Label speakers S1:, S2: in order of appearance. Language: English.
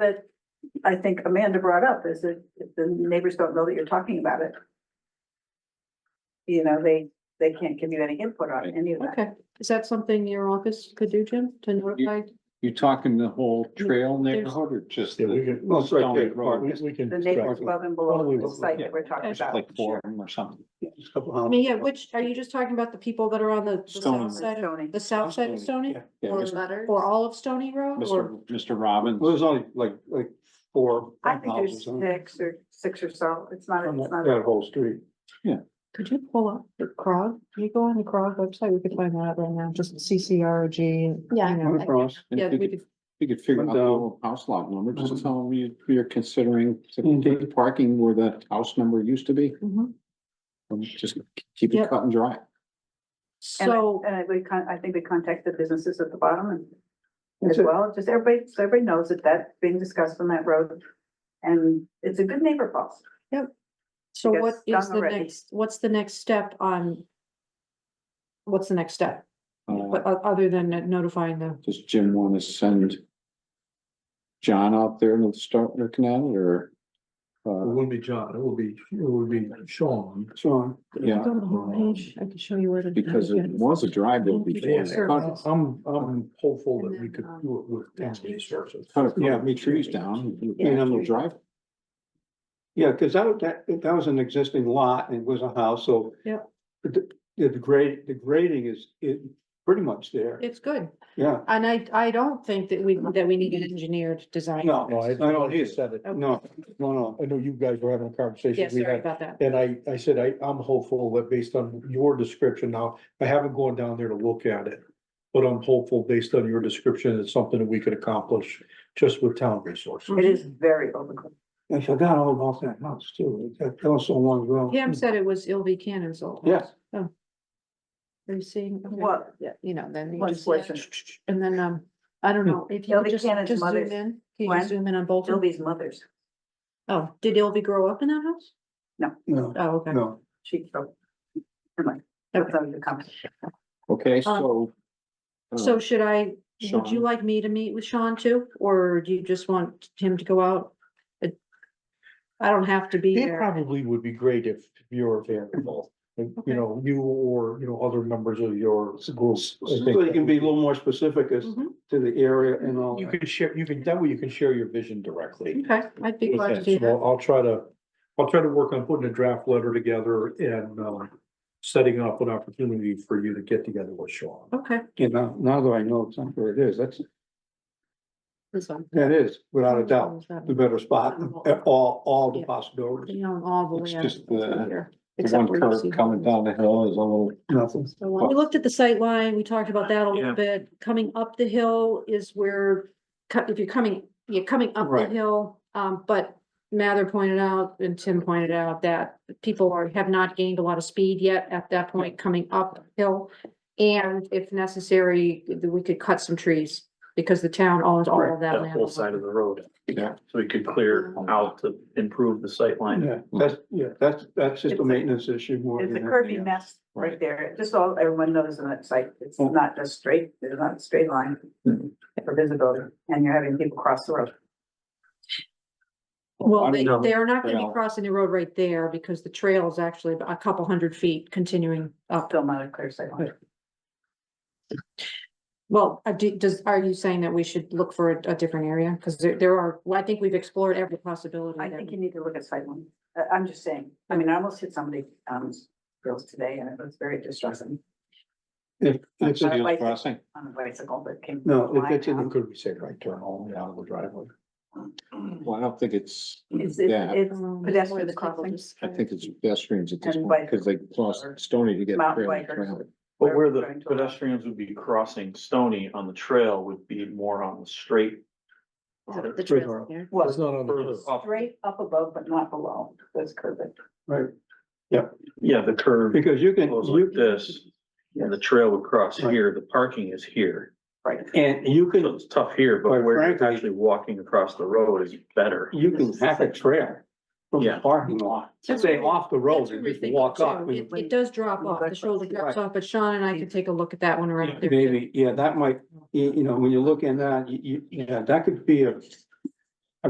S1: that I think Amanda brought up is that if the neighbors don't know that you're talking about it. You know, they, they can't give you any input on any of that.
S2: Okay, is that something your office could do, Jim, to notify?
S3: You talking the whole
S2: Yeah,
S3: trail
S2: there's-
S3: neighborhood or just
S4: Yeah, we
S3: the,
S4: can.
S3: Well, it's right there.
S4: Well, We we can.
S1: The neighbors above and below the site that we're talking
S3: just
S1: about.
S3: like four of them or something?
S2: I mean, yeah, which, are you just talking about the people that are on the the
S3: Stony.
S2: south side, of-
S1: Zoning.
S2: the south side of Stony?
S3: Yeah,
S2: Or-
S3: Mr.
S2: Or all of Stony Road, or,
S3: Mr. Mr. Robbins.
S4: Well, there's only like, like four.
S1: I think there's
S4: houses on-
S1: six or, six or so. It's not,
S4: on
S1: it's
S4: That
S1: not.
S4: that whole street.
S2: could you pull up the CROG? Can you go on the CROG website, we could find that out right now, just CCRG. you
S5: Yeah.
S2: know.
S4: Went across.
S3: And
S2: Yeah,
S3: if you
S2: we
S3: could-
S2: could,
S3: You could figure out the
S4: Window.
S3: whole house lot number, just
S4: Mhm.
S3: tell them you, you're considering to
S4: Mhm.
S3: take the parking where the house number used to be.
S2: Mhm.
S3: And Just keep it
S2: Yep.
S3: cut and dry.
S1: And-
S2: so,
S1: And I- we con, I think we contact the businesses at the bottom and as
S4: That's it.
S1: well, just everybody, so everybody knows that that's being discussed on that road. And it's a good neighbor policy.
S2: so
S1: Yes,
S2: what
S1: done
S2: is the
S1: already.
S2: next, what's the next step on? What's the next step,
S3: Uh,
S2: but o- other than notifying the,
S3: does Jim wanna send John out there and start looking at it or?
S6: It
S3: Uh,
S6: wouldn't be John, it would be, it would be Sean.
S4: Sean.
S3: yeah,
S5: Go to the homepage, I can show you where to.
S3: because it was a driveway before. they cut it.
S6: I'm, I'm hopeful
S2: And
S6: that we
S2: then,
S6: could
S2: um,
S6: do it with town
S2: yeah.
S6: resources.
S3: Cut a
S4: Yeah,
S3: couple
S4: me
S3: of
S4: too.
S3: trees down, you
S4: Yeah.
S3: can handle drive.
S4: Yeah, because that, was- that, that was an existing lot and it was a house, so.
S2: Yep.
S4: The, the grade, the grading is, is pretty much there.
S2: it's good,
S4: Yeah,
S2: and I, I don't think that we, that we need an engineered design.
S4: no, I don't either.
S6: said it.
S4: No, no, no.
S6: I know you guys were having a
S2: Yeah,
S6: conversation. we
S2: sorry
S6: had,
S2: about that,
S6: And I, I said, I, I'm hopeful that based on your description now, I haven't gone down there to look at it. But I'm hopeful based on your description, it's something that we could accomplish just with town resources.
S2: Mm-hmm.
S1: It is very open.
S4: I forgot all about that house too. That that was so long ago.
S2: Pam said it was LV Cannon's old. house. Oh.
S4: Yes.
S2: Are you seeing? okay.
S1: What?
S2: Yeah, you know, then you
S1: What
S2: just,
S1: portion?
S2: and then, um, I
S4: Hmm.
S2: don't know, if you
S1: Ilvi
S2: could just,
S1: Cannon's
S2: just zoom in,
S1: mother's-
S2: can you
S1: When?
S2: just zoom in on Bolton?
S1: Sylvia's mother's,
S2: Oh, did Ilvi grow up in that house?
S4: No,
S2: Oh, okay.
S4: no.
S1: she, so. Anyway,
S2: Okay.
S1: that's all your comment.
S3: Okay, so. uh,
S2: So should I, would you
S3: Sean.
S2: like me to meet with Sean too, or do you just want him to go out? It- I don't have to be
S6: It
S2: there.
S6: probably would be great if you're available, you
S2: Okay.
S6: know, you or, you know, other members of your schools. I
S4: So
S6: think
S4: you can be a little more specific as
S2: Mhm.
S4: to the area and all
S6: You
S4: that.
S6: can share, you can, that way you can share your vision directly.
S2: Okay, I'd be
S6: with
S2: glad to
S6: him.
S2: do
S6: So
S2: that.
S6: I'll try to, I'll try to work on putting a draft letter together and, um, setting up an opportunity for you to get together with Sean.
S2: Okay,
S4: You know, now that I know exactly where it is, that's,
S2: this one.
S4: that is, without a doubt, the better spot, at all, all the
S2: Yeah.
S4: possibilities.
S2: You know, all the
S3: It's
S2: land.
S3: just the-
S2: here,
S3: The
S2: except
S3: one
S2: where you
S3: curve
S2: see
S3: coming
S2: Bolton.
S3: down the hill is a little,
S4: Nothing.
S2: So when We looked at the sight line. we talked about that a little bit. Coming up the hill is where, co- if you're coming, you're coming up the
S4: Right.
S2: hill. Um, but Mather pointed out and Tim pointed out that people are, have not gained a lot of speed yet at that point coming uphill. And if necessary, we could cut some trees because the town owns all of that
S7: that whole side
S2: land.
S7: of the road.
S3: Yeah.
S7: So we could clear
S2: Mm-hmm.
S7: out to improve the sight line.
S4: Yeah, that's, yeah, that's, that's just
S1: It's
S4: a
S1: a-
S4: maintenance issue more
S1: It's
S4: than
S1: a
S4: anything
S1: curvy
S4: else.
S1: mess right
S3: Right.
S1: there, just so everyone knows on that site, it's
S3: Mm.
S1: not just straight, it's not a straight line for visibility, and you're having people cross the road.
S2: Well,
S3: I
S2: they,
S3: know.
S2: they are not gonna
S3: Trail.
S2: be crossing the road right there because the trail is actually a couple hundred feet continuing up.
S1: Still not a clear sight line.
S2: Well, uh, do- does, are you saying that we should look for a, a different area? Because there, there are, well, I think we've explored every possibility.
S1: I
S2: that
S1: think
S2: we-
S1: you need to look at sight line, I, am just saying, I mean, I almost hit somebody, um, girls today, and it was very distressing
S4: If, if
S3: that's
S4: it's,
S3: a
S1: I'd
S3: deal
S1: like
S3: crossing.
S1: on a bicycle that came.
S4: no, if
S1: flying
S4: it's in,
S6: Could we say right turn only out of the driveway?
S1: out.
S3: Well, I don't think it's,
S1: It's,
S3: Yeah.
S1: it's, it's
S2: Um,
S1: pedestrian
S2: it's
S1: crossing,
S3: I think it's pedestrians at this
S1: And
S3: point, because they
S1: bikers.
S3: cross Stony to get.
S1: Mountain
S3: trail to
S1: bikers.
S3: trail.
S7: But where
S1: We're trying
S7: the
S1: to-
S7: pedestrians would be crossing Stony on the trail would be more on the straight.
S2: Oh, The the
S6: Straight
S2: trails
S6: arrow.
S2: there.
S6: It's
S1: well,
S6: not on the.
S7: Further
S6: curve.
S7: up.
S1: straight up above, but not below, that's curvy.
S4: right,
S7: Yeah, the curve
S4: because you can,
S7: goes like
S4: you,
S7: this, and the trail would cross
S4: Right.
S7: here, the parking is here.
S4: and you
S7: So
S4: can,
S7: it's tough here,
S4: Quite
S7: but where you're
S4: frankly-
S7: actually walking across the road is better.
S4: you can hack a trail from the
S7: Yeah.
S4: parking lot,
S2: That's
S4: say
S2: what-
S4: off the
S2: That's
S4: road
S2: what
S4: and
S2: we're
S4: just
S2: thinking
S4: walk up.
S2: too. It,
S4: and-
S2: it does drop off, the
S1: Right.
S2: shoulder drops off, but Sean and I can take a look at that one around.
S4: Maybe, yeah, that might, you, you know, when you look in that, you, you, yeah, that could be a,